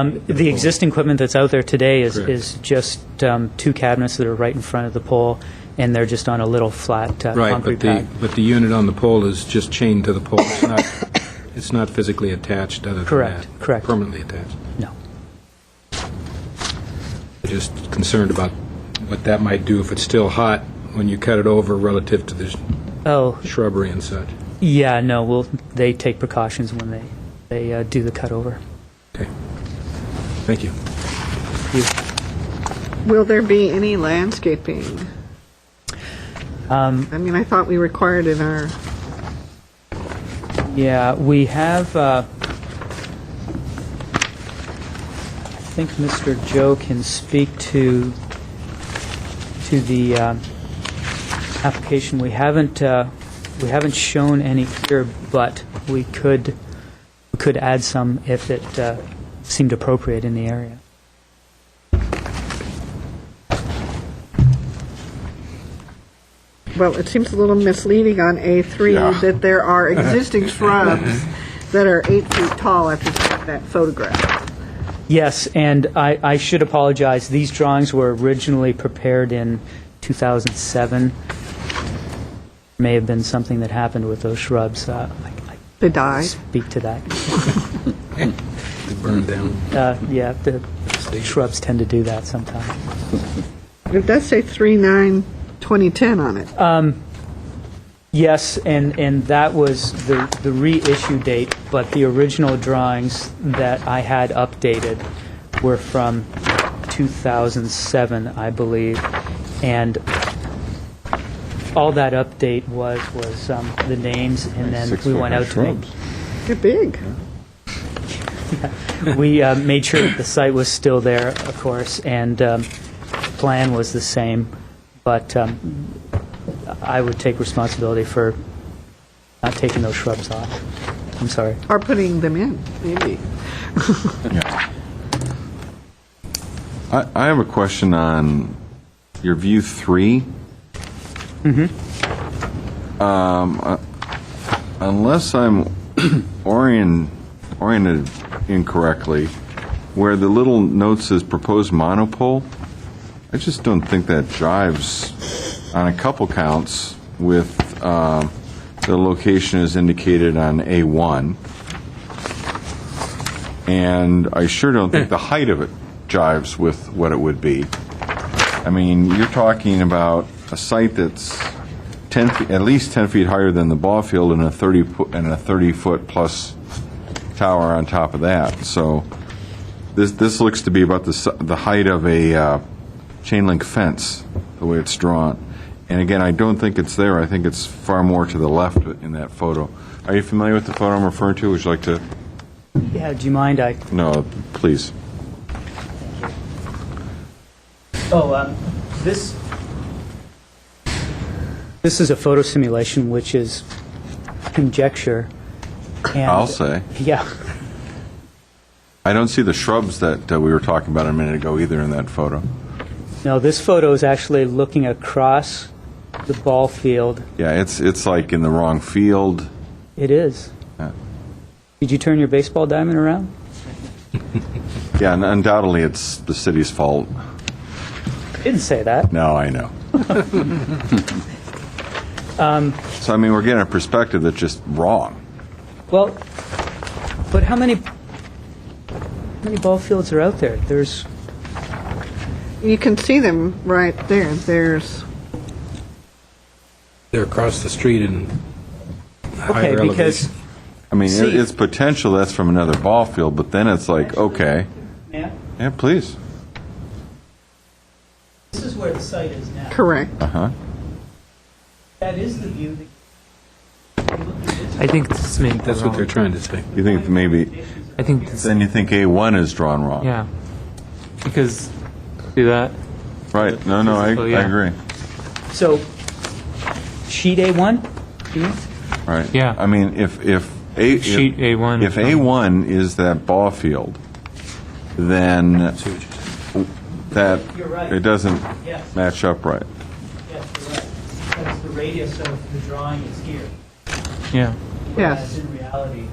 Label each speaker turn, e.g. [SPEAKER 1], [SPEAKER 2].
[SPEAKER 1] Um, The existing equipment that's out there today is,
[SPEAKER 2] Correct.
[SPEAKER 1] is just um, two cabinets that are right in front of the pole, and they're just on a little flat uh,
[SPEAKER 2] Right, but
[SPEAKER 1] concrete
[SPEAKER 2] the,
[SPEAKER 1] pad.
[SPEAKER 2] but the unit on the pole is just chained to the pole. It's not, it's not physically attached other than that.
[SPEAKER 1] Correct, correct.
[SPEAKER 2] Permanently attached.
[SPEAKER 1] No.
[SPEAKER 2] Just concerned about what that might do if it's still hot when you cut it over relative to the
[SPEAKER 1] Oh,
[SPEAKER 2] shrubbery and such.
[SPEAKER 1] yeah, no, well, they take precautions when they, they uh, do the cutover.
[SPEAKER 2] Okay. Thank you.
[SPEAKER 3] Will there be any landscaping? I mean, I thought we required in our,
[SPEAKER 1] Yeah, we have, uh, I think Mr. Joe can speak to, to the uh, application. We haven't, uh, we haven't shown any here, but we could, we could add some if it uh, seemed appropriate in the area.
[SPEAKER 3] well, it seems a little misleading on
[SPEAKER 4] Yeah.
[SPEAKER 3] A3 that there are existing shrubs that are eight feet tall after that photograph.
[SPEAKER 1] Yes, and I, I should apologize. These drawings were originally prepared in 2007. May have been something that happened with those shrubs. Uh, I
[SPEAKER 3] They
[SPEAKER 1] I
[SPEAKER 3] die.
[SPEAKER 1] Speak to that.
[SPEAKER 2] It burned down.
[SPEAKER 1] Uh, Yeah, the shrubs tend to do that sometimes.
[SPEAKER 3] It does say 3/9/2010 on it.
[SPEAKER 1] Yes, and, and that was the, the reissue date, but the original drawings that I had updated were from 2007, I believe. And all that update was, was um, the names, and then
[SPEAKER 4] Six
[SPEAKER 1] we
[SPEAKER 4] foot
[SPEAKER 1] went
[SPEAKER 4] high
[SPEAKER 1] out to make,
[SPEAKER 4] shrubs.
[SPEAKER 3] They're big.
[SPEAKER 1] we uh, made sure that the site was still there, of course, and um, plan was the same, but um, I would take responsibility for not taking those shrubs off. I'm sorry.
[SPEAKER 3] Or putting them in, maybe.
[SPEAKER 4] I, I have a question on your view 3 Um, uh, unless I'm orient, oriented incorrectly, where the little note says proposed monopole, I just don't think that jives on a couple counts with um the location is indicated on A1. and I sure don't think the height of it jives with what it would be. I mean, you're talking about a site that's 10, fe- at least 10 feet higher than the ball field and a 30, po- and a 30-foot plus tower on top of that. So this, this looks to be about the, si- the height of a uh, chain link fence, the way it's drawn. And again, I don't think it's there. I think it's far more to the left in that photo. Are you familiar with the photo I'm referring to? Would you like to?
[SPEAKER 1] Yeah, do you mind? I,
[SPEAKER 4] No, please.
[SPEAKER 1] oh, um, this, this is a photo simulation, which is conjecture. and-
[SPEAKER 4] I'll say.
[SPEAKER 1] Yeah,
[SPEAKER 4] I don't see the shrubs that uh, we were talking about a minute ago either in that photo.
[SPEAKER 1] no, this photo is actually looking across the ball field.
[SPEAKER 4] Yeah, it's it's like in the wrong field.
[SPEAKER 1] It is.
[SPEAKER 4] Yeah,
[SPEAKER 1] Did you turn your baseball diamond around?
[SPEAKER 4] yeah and undoubtedly it's the city's fault.
[SPEAKER 1] Didn't say that.
[SPEAKER 4] No, I know.
[SPEAKER 5] Um,
[SPEAKER 4] so I mean, we're getting a perspective that's just wrong.
[SPEAKER 1] Well, but how many, how many ball fields are out there? There's,
[SPEAKER 3] You can see them right there. There's,
[SPEAKER 2] They're across the street in
[SPEAKER 1] okay,
[SPEAKER 2] higher
[SPEAKER 1] because,
[SPEAKER 2] elevation.
[SPEAKER 4] I mean,
[SPEAKER 1] See-
[SPEAKER 4] it, it's potential that's from another ball field, but then it's like, okay,
[SPEAKER 1] yeah,
[SPEAKER 4] yeah, please.
[SPEAKER 1] this is where the site is now.
[SPEAKER 3] correct.
[SPEAKER 4] Uh huh.
[SPEAKER 1] That is the view that
[SPEAKER 5] I think this may be
[SPEAKER 2] That's what
[SPEAKER 5] wrong.
[SPEAKER 2] they're trying to say.
[SPEAKER 4] You think maybe?
[SPEAKER 5] I think this,
[SPEAKER 4] Then you think A one is drawn wrong.
[SPEAKER 5] yeah, because do that.
[SPEAKER 4] Right. No, no, I,
[SPEAKER 5] Physical, yeah.
[SPEAKER 4] I agree.
[SPEAKER 1] So, sheet A1?
[SPEAKER 4] Right.
[SPEAKER 5] Yeah.
[SPEAKER 4] I mean, if, if. A- if-
[SPEAKER 5] Sheet A1.
[SPEAKER 4] If A1 is that ball field, then that,
[SPEAKER 1] You're right.
[SPEAKER 4] it doesn't
[SPEAKER 1] Yes.
[SPEAKER 4] match up right.
[SPEAKER 1] Yes, correct. That's the radius of the drawing is here.
[SPEAKER 5] Yeah,
[SPEAKER 3] Yes.
[SPEAKER 1] in reality,